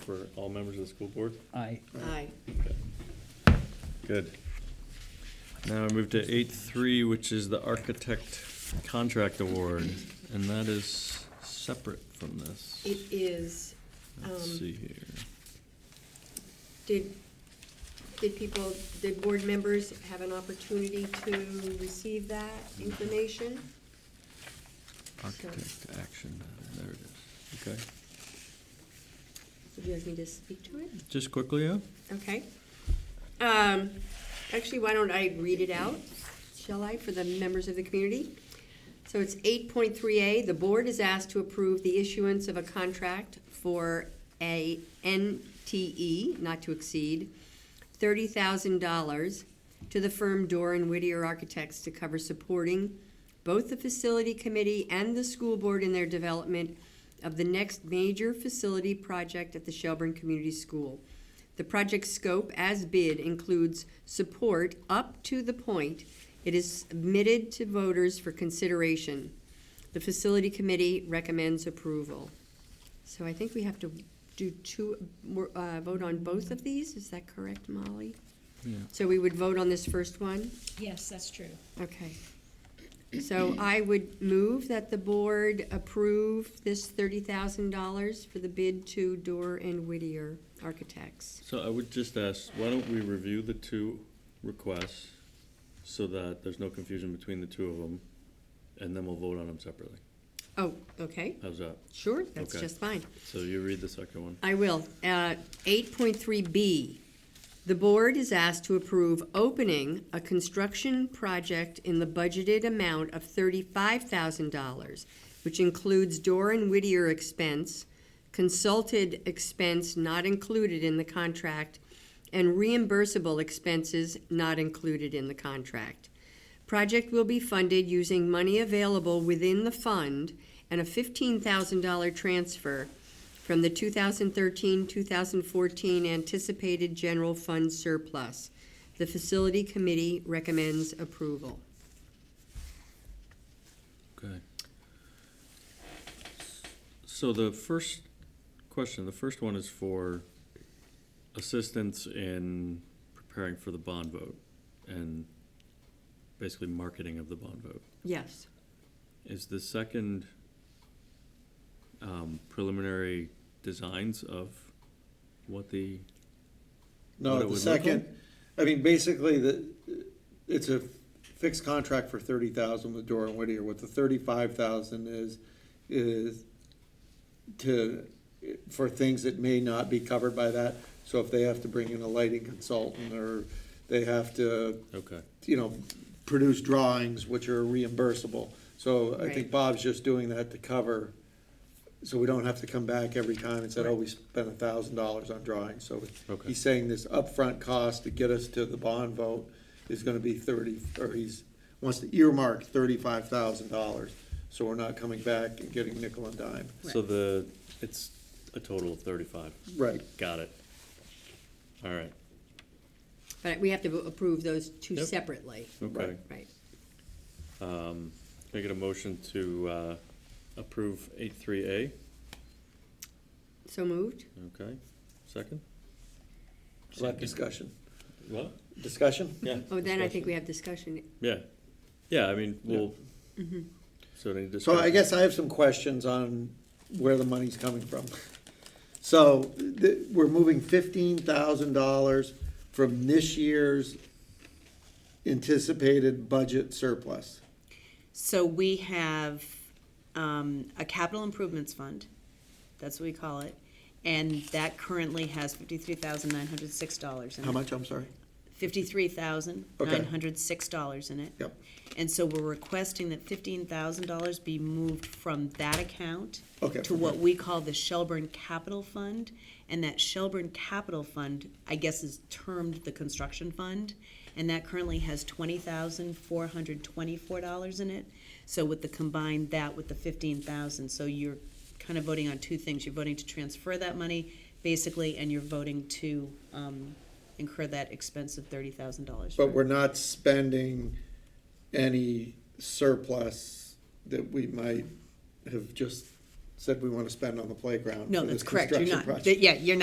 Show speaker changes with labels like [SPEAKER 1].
[SPEAKER 1] for all members of the school board?
[SPEAKER 2] Aye.
[SPEAKER 3] Aye.
[SPEAKER 1] Good. Now I move to eight three, which is the architect contract award, and that is separate from this.
[SPEAKER 3] It is,
[SPEAKER 1] Let's
[SPEAKER 3] um,
[SPEAKER 1] see here.
[SPEAKER 3] did, did people, did board members have an opportunity to receive that
[SPEAKER 1] Mm-hmm.
[SPEAKER 3] information?
[SPEAKER 1] Architect action, there it is. Okay,
[SPEAKER 3] Would you like me to speak to it?
[SPEAKER 1] just quickly, yeah?
[SPEAKER 3] Okay. Um, Actually, why don't I read it out, shall I, for the members of the community? So it's eight point three A, the board is asked to approve the issuance of a contract for a NTE, not to exceed, thirty thousand dollars to the firm Dorr and Whittier Architects to cover supporting both the facility committee and the school board in their development of the next major facility project at the Shelburne Community School. The project scope as bid includes support up to the point it is submitted to voters for consideration. The facility committee recommends approval. So I think we have to do two, uh, vote on both of these, is that correct, Molly?
[SPEAKER 1] Yeah.
[SPEAKER 3] So we would vote on this first one?
[SPEAKER 4] Yes, that's true.
[SPEAKER 3] Okay. So I would move that the board approve this thirty thousand dollars for the bid to Dorr and Whittier Architects.
[SPEAKER 1] So I would just ask, why don't we review the two requests so that there's no confusion between the two of them? And then we'll vote on them separately.
[SPEAKER 3] Oh, okay,
[SPEAKER 1] How's that?
[SPEAKER 3] sure, that's
[SPEAKER 1] Okay.
[SPEAKER 3] just fine.
[SPEAKER 1] So you read the second one.
[SPEAKER 3] I will. Uh, Eight point three B, the board is asked to approve opening a construction project in the budgeted amount of thirty-five thousand dollars, which includes door and Whittier expense, consulted expense not included in the contract, and reimbursable expenses not included in the contract. Project will be funded using money available within the fund and a fifteen thousand dollar transfer from the 2013-2014 anticipated general fund surplus. The facility committee recommends approval.
[SPEAKER 1] Okay. So the first question, the first one is for assistance in preparing for the bond vote and basically marketing of the bond vote.
[SPEAKER 3] Yes.
[SPEAKER 1] Is the second um, preliminary designs of what the,
[SPEAKER 5] No,
[SPEAKER 1] what it
[SPEAKER 5] the
[SPEAKER 1] would look
[SPEAKER 5] second, I mean, basically, the, it's a fixed contract for thirty thousand with Dora and Whittier. What the thirty-five thousand is, is to, for things that may not be covered by that. So if they have to bring in a lighting consultant, or they have to,
[SPEAKER 1] okay,
[SPEAKER 5] you know, produce drawings which are reimbursable. So I
[SPEAKER 3] Right.
[SPEAKER 5] think Bob's just doing that to cover, so we don't have to come back every time and say, oh, we spent a thousand dollars on drawings. So
[SPEAKER 1] okay,
[SPEAKER 5] He's saying this upfront cost to get us to the bond vote is gonna be thirty, or he's, wants to earmark thirty-five thousand dollars. So we're not coming back and getting nickel and dime.
[SPEAKER 1] so the, it's a total of thirty-five,
[SPEAKER 5] Right.
[SPEAKER 1] got it. All right,
[SPEAKER 3] But we have to approve those two
[SPEAKER 1] Yep.
[SPEAKER 3] separately.
[SPEAKER 1] okay.
[SPEAKER 3] Right.
[SPEAKER 1] Um, Can I get a motion to uh, approve eight three A?
[SPEAKER 3] So moved?
[SPEAKER 1] Okay, second?
[SPEAKER 5] Let discussion.
[SPEAKER 1] What?
[SPEAKER 5] Discussion?
[SPEAKER 1] Yeah.
[SPEAKER 3] Oh, then I think we have discussion.
[SPEAKER 1] Yeah, yeah, I mean, we'll, so any
[SPEAKER 5] So
[SPEAKER 1] discussion?
[SPEAKER 5] I guess I have some questions on where the money's coming from. So, th- we're moving fifteen thousand dollars from this year's anticipated budget surplus.
[SPEAKER 6] So we have um, a capital improvements fund, that's what we call it, and that currently has fifty-three thousand nine hundred six dollars in it.
[SPEAKER 5] How much, I'm sorry?
[SPEAKER 6] Fifty-three thousand nine hundred six dollars in it.
[SPEAKER 5] Yep.
[SPEAKER 6] And so we're requesting that fifteen thousand dollars be moved from that account
[SPEAKER 5] Okay.
[SPEAKER 6] to what we call the Shelburne Capital Fund, and that Shelburne Capital Fund, I guess, is termed the construction fund, and that currently has twenty thousand four hundred twenty-four dollars in it. So with the combined that with the fifteen thousand, so you're kind of voting on two things, you're voting to transfer that money, basically, and you're voting to, um, incur that expense of thirty thousand dollars.
[SPEAKER 5] But we're not spending any surplus that we might have just said we want to spend on the playground.
[SPEAKER 6] No,
[SPEAKER 5] for this
[SPEAKER 6] that's correct, you're
[SPEAKER 5] construction
[SPEAKER 6] not,
[SPEAKER 5] project.
[SPEAKER 6] yeah, you're not